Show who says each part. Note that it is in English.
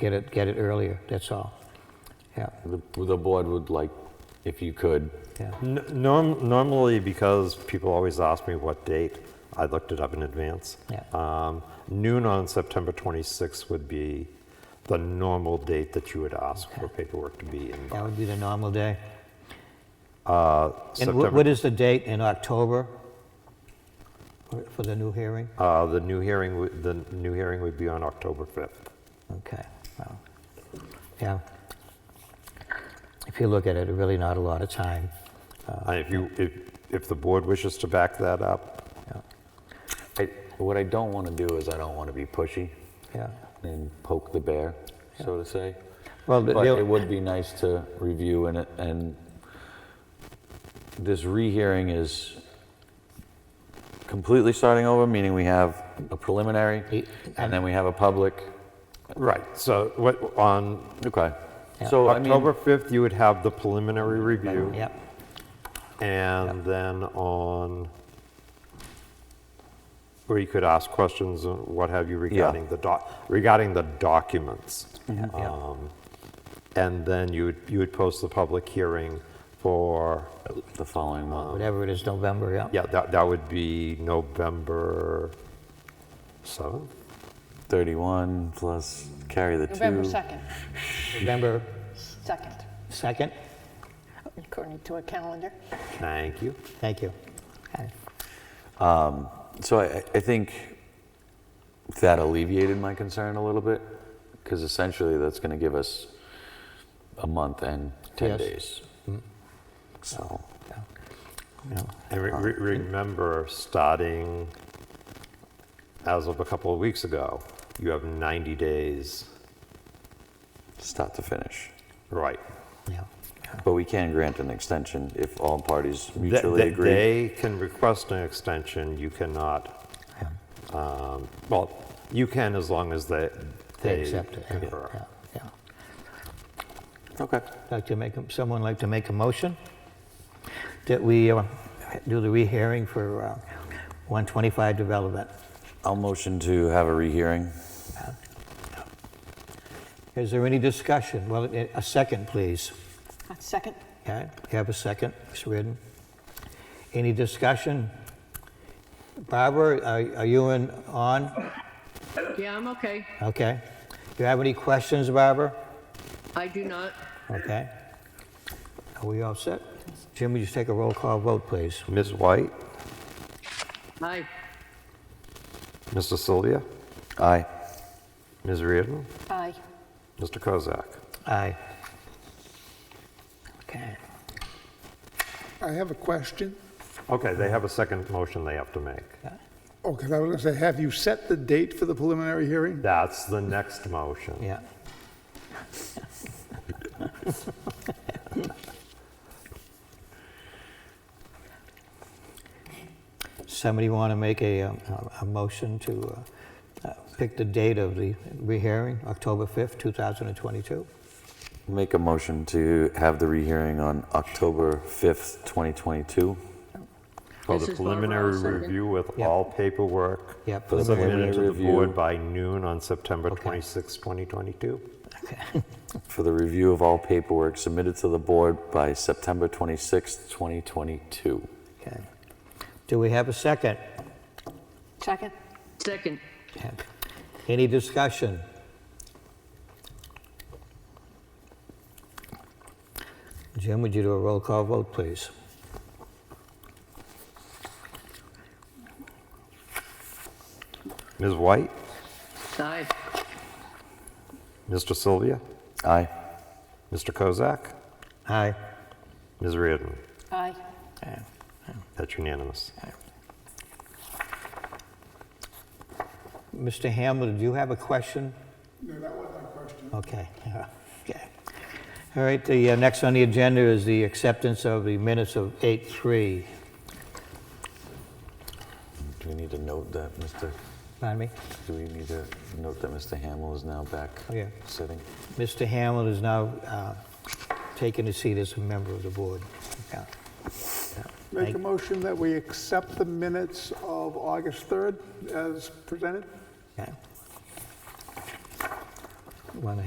Speaker 1: get it, get it earlier, that's all. Yeah,
Speaker 2: The, the board would like, if you could,
Speaker 1: yeah.
Speaker 3: N- Norm, normally, because people always ask me what date, I looked it up in advance.
Speaker 1: Yeah.
Speaker 3: Um, noon on September 26th would be the normal date that you would ask for paperwork to be in.
Speaker 1: That would be the normal day.
Speaker 3: Uh,
Speaker 1: And
Speaker 3: September,
Speaker 1: wh- what is the date in October for- for the new hearing?
Speaker 3: uh, the new hearing, would- the new hearing would be on October 5th.
Speaker 1: Okay, well, yeah. If you look at it, really not a lot of time. Uh,
Speaker 3: And if you, if, if the board wishes to back that up,
Speaker 1: Yeah,
Speaker 2: I, what I don't want to do is I don't want to be pushy
Speaker 1: Yeah.
Speaker 2: and poke the bear, so to say.
Speaker 1: Well, the-
Speaker 2: But
Speaker 1: the-
Speaker 2: it would be nice to review and, and this rehearing is completely starting over, meaning we have a preliminary and then we have a public.
Speaker 3: right, so what, on
Speaker 2: Okay.
Speaker 1: Yeah.
Speaker 2: So I mean,
Speaker 3: October 5th, you would have the preliminary review.
Speaker 1: Yep,
Speaker 3: And then on, where you could ask questions and what have you regarding the doc, regarding the documents.
Speaker 1: yeah,
Speaker 3: And then you would, you would post the public hearing for,
Speaker 2: the following month.
Speaker 1: whatever it is, November, yeah.
Speaker 3: yeah, that, that would be November 7th?
Speaker 2: 31 plus carry the two.
Speaker 4: November 2nd,
Speaker 1: November
Speaker 4: 2nd,
Speaker 1: 2nd?
Speaker 4: according to a calendar.
Speaker 3: Thank you.
Speaker 1: Thank you. Okay.
Speaker 2: So I, I think that alleviated my concern a little bit, because essentially that's going to give us a month and 10
Speaker 1: Yes.
Speaker 2: days.
Speaker 3: Mm-hmm.
Speaker 2: So,
Speaker 1: Yeah. Yeah.
Speaker 3: And re- re- remember, starting as of a couple of weeks ago, you have 90 days,
Speaker 2: start to finish.
Speaker 3: right?
Speaker 1: Yeah.
Speaker 2: But we can grant an extension if all parties
Speaker 3: That-
Speaker 2: mutually
Speaker 3: that
Speaker 2: agree.
Speaker 3: They can request an extension, you cannot,
Speaker 1: Yeah.
Speaker 3: um, well, you can as long as they.
Speaker 1: They accept it. yeah,
Speaker 3: concur.
Speaker 1: yeah, yeah.
Speaker 2: Okay.
Speaker 1: Like to make, a- someone like to make a motion that we uh, do the rehearing for uh, 125 development.
Speaker 2: I'll motion to have a rehearing.
Speaker 1: Is there any discussion? Well, a a second, please.
Speaker 4: A Second,
Speaker 1: Okay, you have a second, Ms. Reardon? Any discussion? Barbara, are are you in, on?
Speaker 5: Yeah, I'm okay.
Speaker 1: Okay. Do you have any questions, Barbara?
Speaker 5: I do not.
Speaker 1: Okay. Are we all set? Jim, would you take a roll call vote, please?
Speaker 3: Ms. White,
Speaker 5: Aye.
Speaker 3: Mr. Sylvia,
Speaker 2: Aye.
Speaker 3: Ms. Reardon,
Speaker 4: aye.
Speaker 3: Mr. Kozak.
Speaker 1: Aye. Okay.
Speaker 6: I have a question.
Speaker 3: Okay, they have a second motion they have to make.
Speaker 6: Okay, Oh, I was going to say, have you set the date for the preliminary hearing?
Speaker 3: That's the next motion.
Speaker 1: Yeah. Somebody want to make a, um, a- a motion to uh, uh, pick the date of the rehearing, October 5th, 2022?
Speaker 2: Make a motion to have the rehearing on October 5th, 2022.
Speaker 3: For the
Speaker 5: This is Barbara,
Speaker 3: preliminary
Speaker 5: I'll second.
Speaker 3: review with
Speaker 1: Yep.
Speaker 3: all paperwork
Speaker 1: Yep.
Speaker 2: Preliminary
Speaker 3: submitted to the
Speaker 2: review.
Speaker 3: board by noon on September 26, 2022.
Speaker 2: for the review of all paperwork submitted to the board by September 26th, 2022.
Speaker 1: Okay. Do we have a second?
Speaker 4: Second,
Speaker 5: Second.
Speaker 1: Any discussion? Jim, would you do a roll call vote, please?
Speaker 3: Ms. White,
Speaker 5: Aye.
Speaker 3: Mr. Sylvia,
Speaker 2: Aye.
Speaker 3: Mr. Kozak,
Speaker 1: Aye.
Speaker 3: Ms. Reardon.
Speaker 4: aye.
Speaker 3: That's unanimous.
Speaker 1: Mr. Hamlin, do you have a question?
Speaker 6: No, that wasn't my question.
Speaker 1: Okay, yeah, okay. All right, the uh, next on the agenda is the acceptance of the minutes of 8:3.
Speaker 2: Do we need to note that Mr.,
Speaker 1: Pardon me?
Speaker 2: do we need to note that Mr. Hamill is now back
Speaker 1: Oh, yeah.
Speaker 2: sitting?
Speaker 1: Mr. Hamlin is now uh, taking his seat as a member of the board. Yeah.
Speaker 6: Make a motion that we accept the minutes of August 3rd as presented?
Speaker 1: Okay. Want to